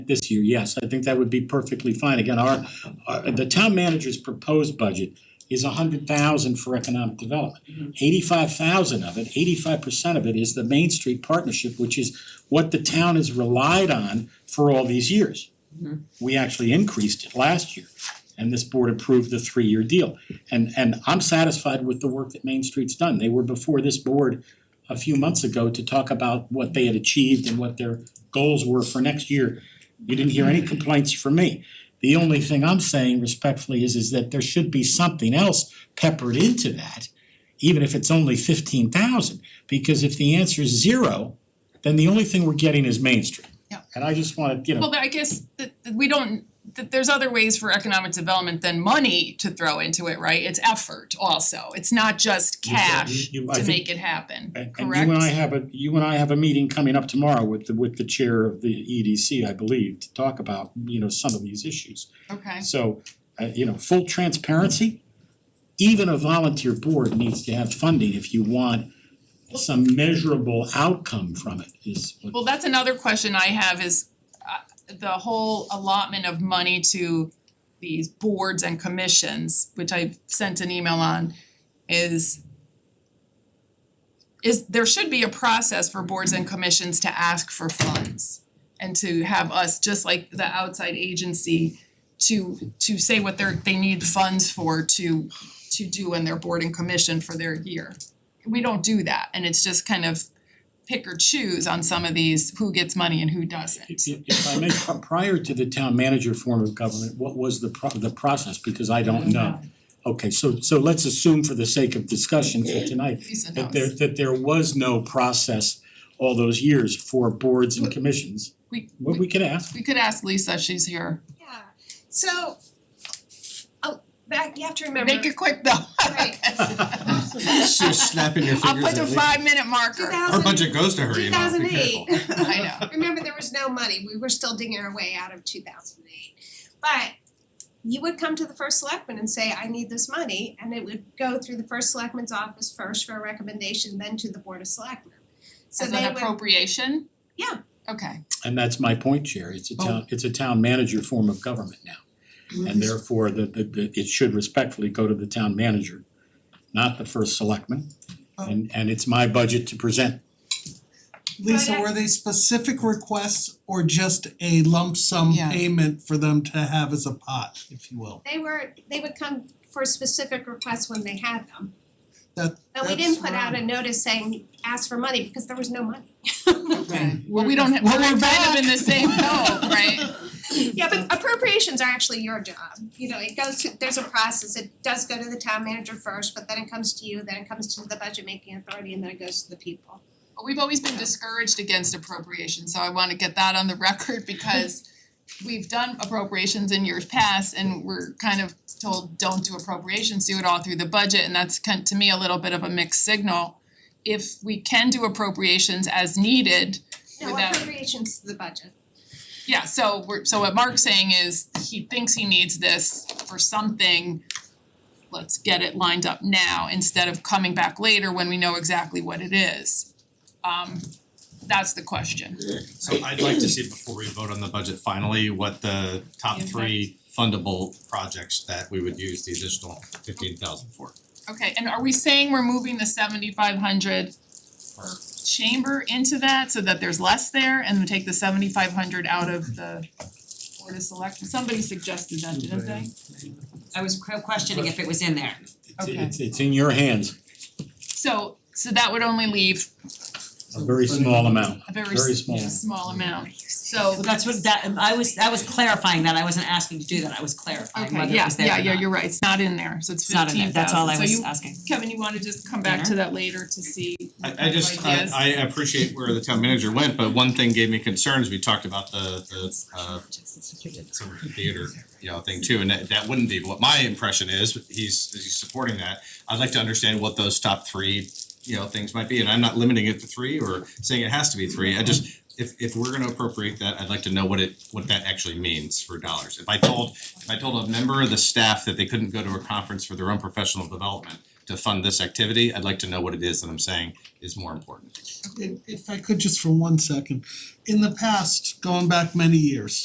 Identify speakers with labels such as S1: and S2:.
S1: this year, yes, I think that would be perfectly fine. Again, our, our, the town manager's proposed budget is a hundred thousand for economic development. Eighty-five thousand of it, eighty-five percent of it is the Main Street Partnership, which is what the town has relied on for all these years. We actually increased it last year, and this board approved the three-year deal. And, and I'm satisfied with the work that Main Street's done. They were before this board a few months ago to talk about what they had achieved and what their goals were for next year. You didn't hear any complaints from me. The only thing I'm saying respectfully is is that there should be something else peppered into that, even if it's only fifteen thousand. Because if the answer is zero, then the only thing we're getting is Main Street.
S2: Yeah.
S1: And I just wanna, you know,
S2: Well, but I guess that that we don't, that there's other ways for economic development than money to throw into it, right? It's effort also, it's not just
S1: You said you-
S2: cash
S1: you- I
S2: to
S1: think-
S2: make it happen,
S1: And
S2: correct?
S1: and you and I have a, you and I have a meeting coming up tomorrow with the, with the chair of the EDC, I believe, to talk about, you know, some of these issues.
S2: Okay,
S1: So, uh, you know, full transparency, even a volunteer board needs to have funding if you want some measurable outcome from it is what.
S2: well, that's another question I have is uh the whole allotment of money to these boards and commissions, which I've sent an email on, is is there should be a process for boards and commissions to ask for funds. and to have us, just like the outside agency, to to say what they're they need funds for to to do in their board and commission for their year. We don't do that and it's just kind of pick or choose on some of these who gets money and who doesn't.
S1: If if I may, pri- prior to the town manager form of government, what was the pro- the process, because I don't know. Okay, so so let's assume for the sake of discussion for tonight,
S2: Lisa
S1: that
S2: knows.
S1: there that there was no process all those years for boards and commissions.
S2: We-
S1: Well, we can ask,
S2: We could ask Lisa, she's here.
S3: Yeah, so, oh, back, you have to remember.
S2: Make it quick though.
S3: Right.
S4: Just snapping your
S2: I'll
S4: fingers
S2: put the
S4: at least.
S2: five minute marker.
S4: Our
S3: 2000
S4: budget goes to her, you know, be
S3: 2008.
S4: careful.
S2: I know.
S3: Remember, there was no money, we were still digging our way out of two thousand and eight. But you would come to the first selectman and say, I need this money, and it would go through the first selectman's office first for a recommendation, then to the board of selectmen. So
S2: As
S3: they
S2: an
S3: would,
S2: appropriation?
S3: Yeah.
S2: Okay.
S1: and that's my point, Chair, it's a
S2: Oh.
S1: town, it's a town manager form of government now. And therefore, the the the it should respectfully go to the town manager, not the first selectman.
S2: Oh.
S1: And and it's my budget to present,
S5: Lisa,
S3: But I-
S5: were they specific requests or just a lump sum
S2: Yeah.
S5: payment for them to have as a pot, if you will?
S3: they were, they would come for specific requests when they had them.
S5: That-
S3: But we
S5: that's
S3: didn't put out a
S5: right.
S3: notice saying, ask for money, because there was no money.
S2: Okay. Well, we don't have,
S5: Well,
S2: we're
S5: we're
S2: kind of in
S5: back.
S2: the same boat, right?
S3: Yeah, but appropriations are actually your job, you know, it goes to, there's a process, it does go to the town manager first, but then it comes to you, then it comes to the budget making authority, and then it goes to the people.
S2: But we've always been discouraged against appropriation, so I wanna get that on the record because we've done appropriations in years past and we're kind of told, don't do appropriations, do it all through the budget, and that's kind, to me, a little bit of a mixed signal. If we can do appropriations as needed,
S3: No,
S2: Without-
S3: appropriations to the budget.
S2: yeah, so we're, so what Mark's saying is he thinks he needs this for something. Let's get it lined up now instead of coming back later when we know exactly what it is. Um that's the question.
S4: So I'd like to see before we vote on the budget finally, what the top
S2: Impact.
S4: three fundable projects that we would use the additional fifteen thousand for.
S2: Okay, and are we saying we're moving the seventy five hundred per chamber into that so that there's less there and we take the seventy five hundred out of the Board of Select, somebody suggested that, didn't they?
S6: I was que- questioning if it was in there.
S1: it's
S2: Okay.
S1: it's it's in your hands,
S2: So so that would only leave
S1: a very small amount,
S2: a very
S1: Very
S2: s-
S1: small.
S2: small amount, so
S6: Well, Oh, that's what that, I was, I was clarifying that, I wasn't asking to do that, I was clarifying
S2: Okay,
S6: whether it
S2: yeah,
S6: was there or
S2: yeah,
S6: not.
S2: yeah, you're right, it's not in there, so it's
S6: It's not in there,
S2: fifteen
S6: that's all I
S2: thousand, so
S6: was
S2: you,
S6: asking.
S2: Kevin, you wanna just come back to that later to see
S4: I I just, I
S2: ideas?
S4: I appreciate where the town manager went, but one thing gave me concerns, we talked about the the uh sort of theater, you know, thing too, and that that wouldn't be what my impression is, he's he's supporting that. I'd like to understand what those top three, you know, things might be, and I'm not limiting it to three or saying it has to be three, I just if if we're gonna appropriate that, I'd like to know what it what that actually means for dollars. If I told, if I told a member of the staff that they couldn't go to a conference for their own professional development to fund this activity, I'd like to know what it is that I'm saying is more important.
S5: If if I could just for one second, in the past, going back many years,